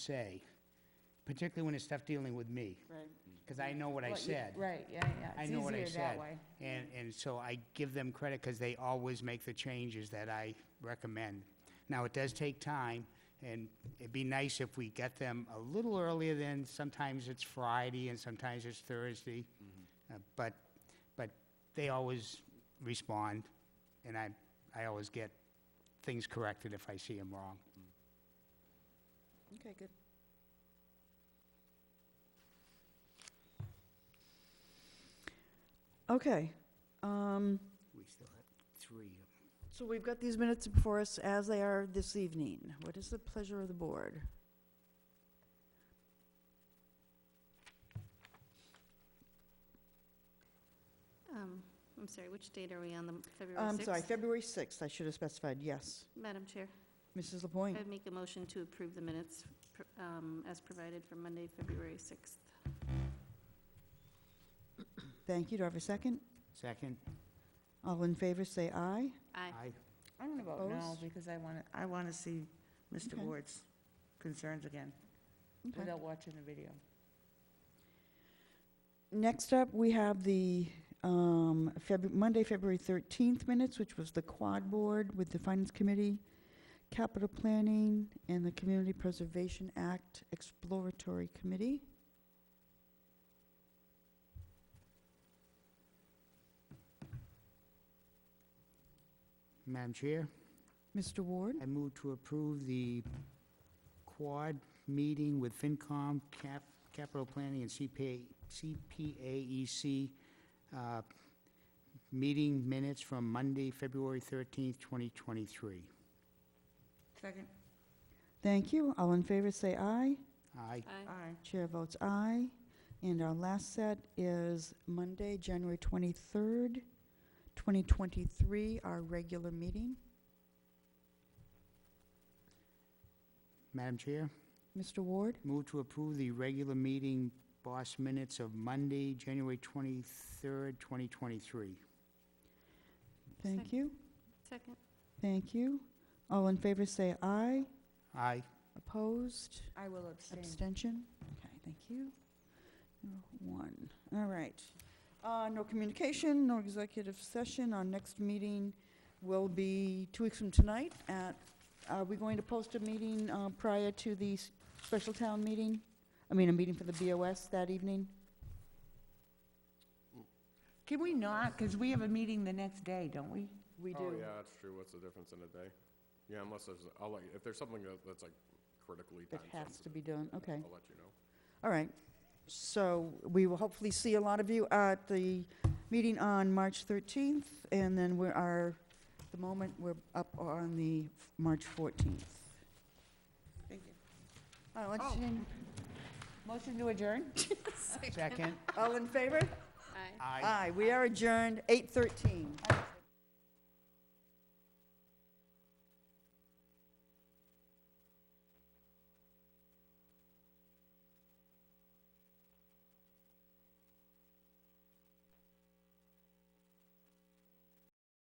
say, particularly when it's stuff dealing with me, Right. because I know what I What you- said. Right, yeah, yeah. I It's know what I easier that said. way. And, and so I give them credit because they always make the changes that I recommend. Now, it does take time, and it'd be nice if we get them a little earlier than, sometimes it's Friday and sometimes it's Thursday. Mm-hmm. Uh, But, but they always respond, and I, I always get things corrected if I see them wrong. Okay, good. Okay, um, We still have three. so we've got these minutes before us as they are this evening. What is the pleasure of the board? Um, I'm sorry, which date are we on, the m- February 6th? Um, I'm Um, sorry, February 6th, I should have specified, yes. Madam Chair, Mrs. LaPointe? I'd make a motion to approve the minutes pr- um, as provided for Monday, February 6th. Thank you. Do I have a second? Second? All in favor, say aye. Aye. Aye. I'm gonna vote no, Opposed? because I wanna, I wanna see Mr. Okay. Ward's concerns again, Okay. without watching the video. Next up, we have the um, Feb- Monday, February 13th minutes, which was the Quad Board with the Finance Committee, Capital Planning, and the Community Preservation Act Exploratory Committee. Madam Chair? Mr. Ward? I move to approve the quad meeting with FinCom, Cap, Capital Planning, and CPA, CPAEC, E uh, meeting minutes from Monday, February thirteenth, twenty twenty-three. Second? Thank you. All in favor, say aye. Aye. Aye. Aye. Chair votes aye. And our last set is Monday, January 23rd, 2023, our regular meeting. Madam Chair, Mr. Ward? move to approve the regular meeting boss minutes of Monday, January twenty-third, twenty twenty-three. Thank Second. you. Second. Thank you. All in favor, say aye. Aye. Opposed? I will abstain. Abstention? Okay, thank you. You're One, all right. Uh, No communication, no executive session. Our next meeting will be two weeks from tonight at, are we going to post a meeting uh, prior to the s- special town meeting? I mean, a meeting for the BOS that evening? Can we not, because we have a meeting the next day, don't we? We Oh, yeah, that's true. What's the difference in a day? Yeah, unless there's, I'll let, you- if there's something that, that's like critically That time sensitive. has to be done, okay. I'll let you know. All right. So we will hopefully see a lot of you at the meeting on March 13th, and then we are, the moment, we're up on the f- March 14th. Thank you. Oh. All right, let's- Motion to adjourn? Second? All in favor? Aye. Aye. Aye, we are adjourned, 8:13.